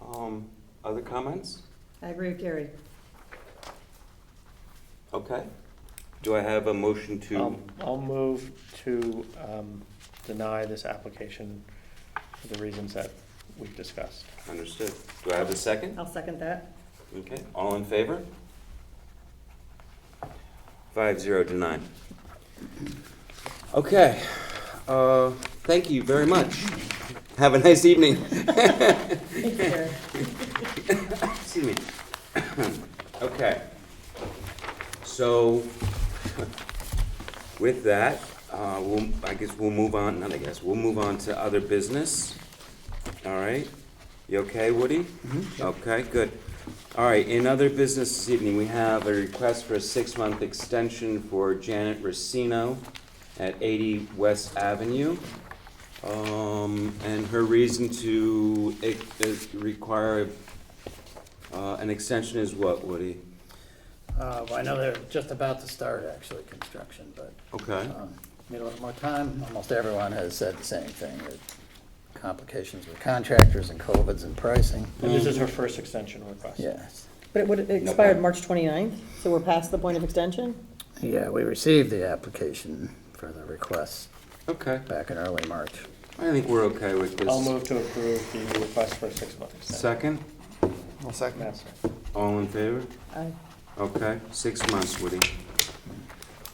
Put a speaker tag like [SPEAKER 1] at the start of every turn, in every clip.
[SPEAKER 1] Um, Other comments?
[SPEAKER 2] I agree with Gary.
[SPEAKER 1] Okay. Do I have a motion to,
[SPEAKER 3] I'll, Um, I'll move to um, deny this application for the reasons that we've discussed.
[SPEAKER 1] understood. Do I have a second?
[SPEAKER 2] I'll second that.
[SPEAKER 1] Okay, all in favor? Five zero to nine. Okay, uh, thank you very much. Have a nice evening.
[SPEAKER 2] Thank you, Gary.
[SPEAKER 1] Excuse me. Okay. So with that, uh, we'll, I guess we'll move on, not I guess, we'll move on to other business. All right? You okay, Woody? Okay, good. All right, in other business this evening, we have a request for a six-month extension for Janet Racino at eighty West Avenue. Um, and her reason to, eh, eh, require uh, an extension is what, Woody?
[SPEAKER 4] Uh, well, I know they're just about to start actually construction, but,
[SPEAKER 1] Okay.
[SPEAKER 4] um, need a little more time. Almost everyone has said the same thing, that complications with contractors and COVIDs and pricing.
[SPEAKER 3] And this is
[SPEAKER 1] Mm.
[SPEAKER 3] her first extension request.
[SPEAKER 4] Yes.
[SPEAKER 2] But it would, it expired March 29th, so we're past the point of extension?
[SPEAKER 4] Yeah, we received the application for the request
[SPEAKER 1] Okay.
[SPEAKER 4] back in early March.
[SPEAKER 1] I think we're okay with this.
[SPEAKER 3] I'll move to approve the request for a six-month extension.
[SPEAKER 1] Second,
[SPEAKER 5] I'll second.
[SPEAKER 3] Yes.
[SPEAKER 1] all in favor?
[SPEAKER 2] Aye.
[SPEAKER 1] Okay, six months, Woody.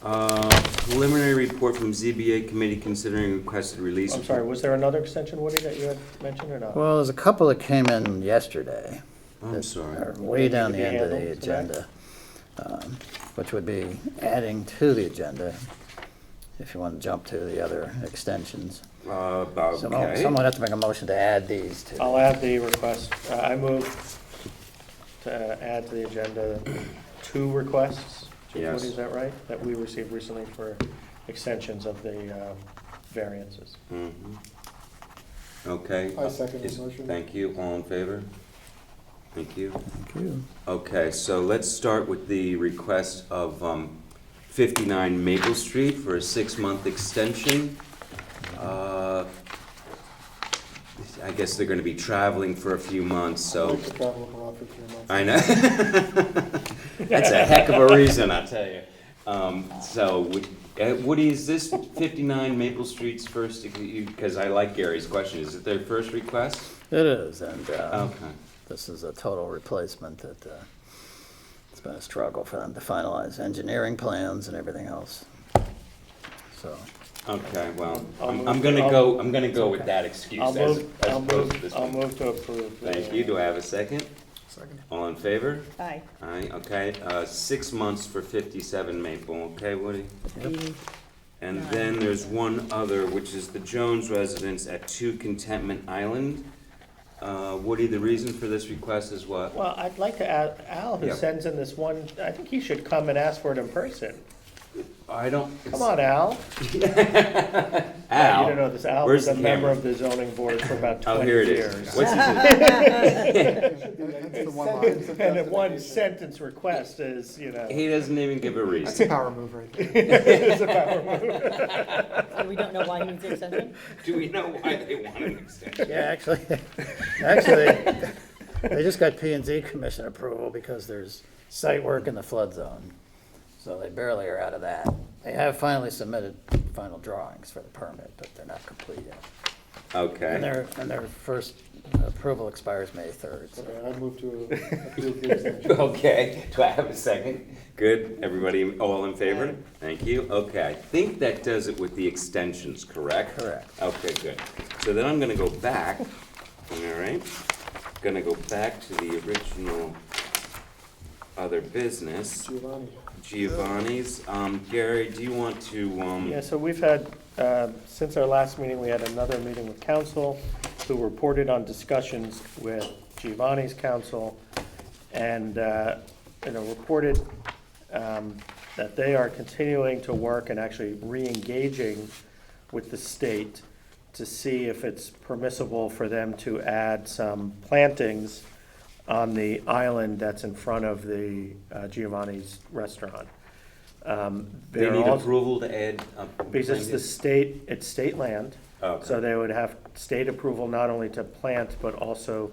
[SPEAKER 1] Uh, Preliminary report from ZBA committee considering requested release.
[SPEAKER 3] I'm sorry, was there another extension, Woody, that you had mentioned or not?
[SPEAKER 4] Well, there's a couple that came in yesterday.
[SPEAKER 1] I'm
[SPEAKER 4] that
[SPEAKER 1] sorry.
[SPEAKER 4] are Way down the
[SPEAKER 3] Could be
[SPEAKER 4] end of the
[SPEAKER 3] handled today.
[SPEAKER 4] agenda, um, which would be adding to the agenda, if you want to jump to the other extensions.
[SPEAKER 1] Uh,
[SPEAKER 4] Someone
[SPEAKER 1] Okay.
[SPEAKER 4] someone has to make a motion to add these to.
[SPEAKER 3] I'll add the request, uh, I move to uh, add to the agenda two requests. Chief
[SPEAKER 1] Yes.
[SPEAKER 3] Woody, is that right? That we received recently for extensions of the um, variances.
[SPEAKER 1] Mhm. Mm-hmm. Okay.
[SPEAKER 5] I second the
[SPEAKER 1] Is-
[SPEAKER 5] motion.
[SPEAKER 1] Thank you, all in favor? Thank you.
[SPEAKER 4] Thank you.
[SPEAKER 1] Okay, so let's start with the request of um, 59 Maple Street for a six-month extension. Uh, I guess they're going to be traveling for a few months,
[SPEAKER 5] I'd
[SPEAKER 1] so,
[SPEAKER 5] like to travel abroad for three months.
[SPEAKER 1] I know. That's a heck of a reason, I tell you. Um, So, would- uh, Woody, is this 59 Maple Street's first, because I like Gary's question, is it their first request?
[SPEAKER 4] It is, and uh,
[SPEAKER 1] Okay.
[SPEAKER 4] this is a total replacement that, uh, it's been a struggle for them to finalize engineering plans and everything else. So,
[SPEAKER 1] Okay, well,
[SPEAKER 3] I'll
[SPEAKER 1] I'm,
[SPEAKER 3] move
[SPEAKER 1] I'm
[SPEAKER 3] to-
[SPEAKER 1] gonna
[SPEAKER 3] I'll-
[SPEAKER 1] go, I'm gonna go with
[SPEAKER 3] okay.
[SPEAKER 1] that excuse
[SPEAKER 3] I'll
[SPEAKER 1] as,
[SPEAKER 3] move,
[SPEAKER 1] as
[SPEAKER 3] I'll
[SPEAKER 1] opposed to this
[SPEAKER 3] move, I'll
[SPEAKER 1] one.
[SPEAKER 3] move to approve. the- uh,
[SPEAKER 1] Thank you, do I have a second?
[SPEAKER 5] Second.
[SPEAKER 1] All in favor?
[SPEAKER 2] Aye.
[SPEAKER 1] Aye, okay, uh, six months for fifty-seven Maple, okay, Woody?
[SPEAKER 2] The-
[SPEAKER 1] And then there's one other, which is the Jones residence at Two Contentment Island. Uh, Woody, the reason for this request is what?
[SPEAKER 3] Well, I'd like to add, Al, who
[SPEAKER 1] Yeah.
[SPEAKER 3] sends in this one, I think he should come and ask for it in person.
[SPEAKER 1] I don't.
[SPEAKER 3] Come on, Al. You don't know
[SPEAKER 1] Al,
[SPEAKER 3] this, Al
[SPEAKER 1] Where's
[SPEAKER 3] was a
[SPEAKER 1] the
[SPEAKER 3] member
[SPEAKER 1] hammer?
[SPEAKER 3] of the zoning board for about
[SPEAKER 1] oh,
[SPEAKER 3] twenty
[SPEAKER 1] here it
[SPEAKER 3] years.
[SPEAKER 1] is. What's his-
[SPEAKER 5] That's the one line.
[SPEAKER 3] And a one sentence request is, you know.
[SPEAKER 1] He doesn't even give a
[SPEAKER 5] That's
[SPEAKER 1] reason.
[SPEAKER 5] a power move right there.
[SPEAKER 3] is a power move.
[SPEAKER 2] So we don't know why he needs the extension?
[SPEAKER 1] Do we know why they want an extension?
[SPEAKER 4] yeah, actually, actually, they just got P and Z commission approval because there's site work in the flood zone. So they barely are out of that. They have finally submitted final drawings for the permit, but they're not complete yet. And
[SPEAKER 1] Okay,
[SPEAKER 4] their, and their first approval expires May third, so.
[SPEAKER 5] Okay, I move to approve the extension.
[SPEAKER 1] okay, do I have a second? Good, everybody, all in favor? Thank you, okay, I think that does it with the extensions, correct?
[SPEAKER 4] Correct.
[SPEAKER 1] Okay, good, so then I'm gonna go back, all right? Gonna go back to the original other business,
[SPEAKER 5] Giovanni.
[SPEAKER 1] Giovanni's, um, Gary, do you want to, um?
[SPEAKER 3] Yeah, so we've had, um, since our last meeting, we had another meeting with council, who reported on discussions with Giovanni's council, and, uh, you know, reported um, that they are continuing to work and actually re-engaging with the state to see if it's permissible for them to add some plantings on the island that's in front of the uh, Giovanni's restaurant. Um,
[SPEAKER 1] They
[SPEAKER 3] they're
[SPEAKER 1] need
[SPEAKER 3] also-
[SPEAKER 1] approval to add uh, a.
[SPEAKER 3] because it's the state, it's state land.
[SPEAKER 1] Okay.
[SPEAKER 3] So they would have state approval not only to plant, but also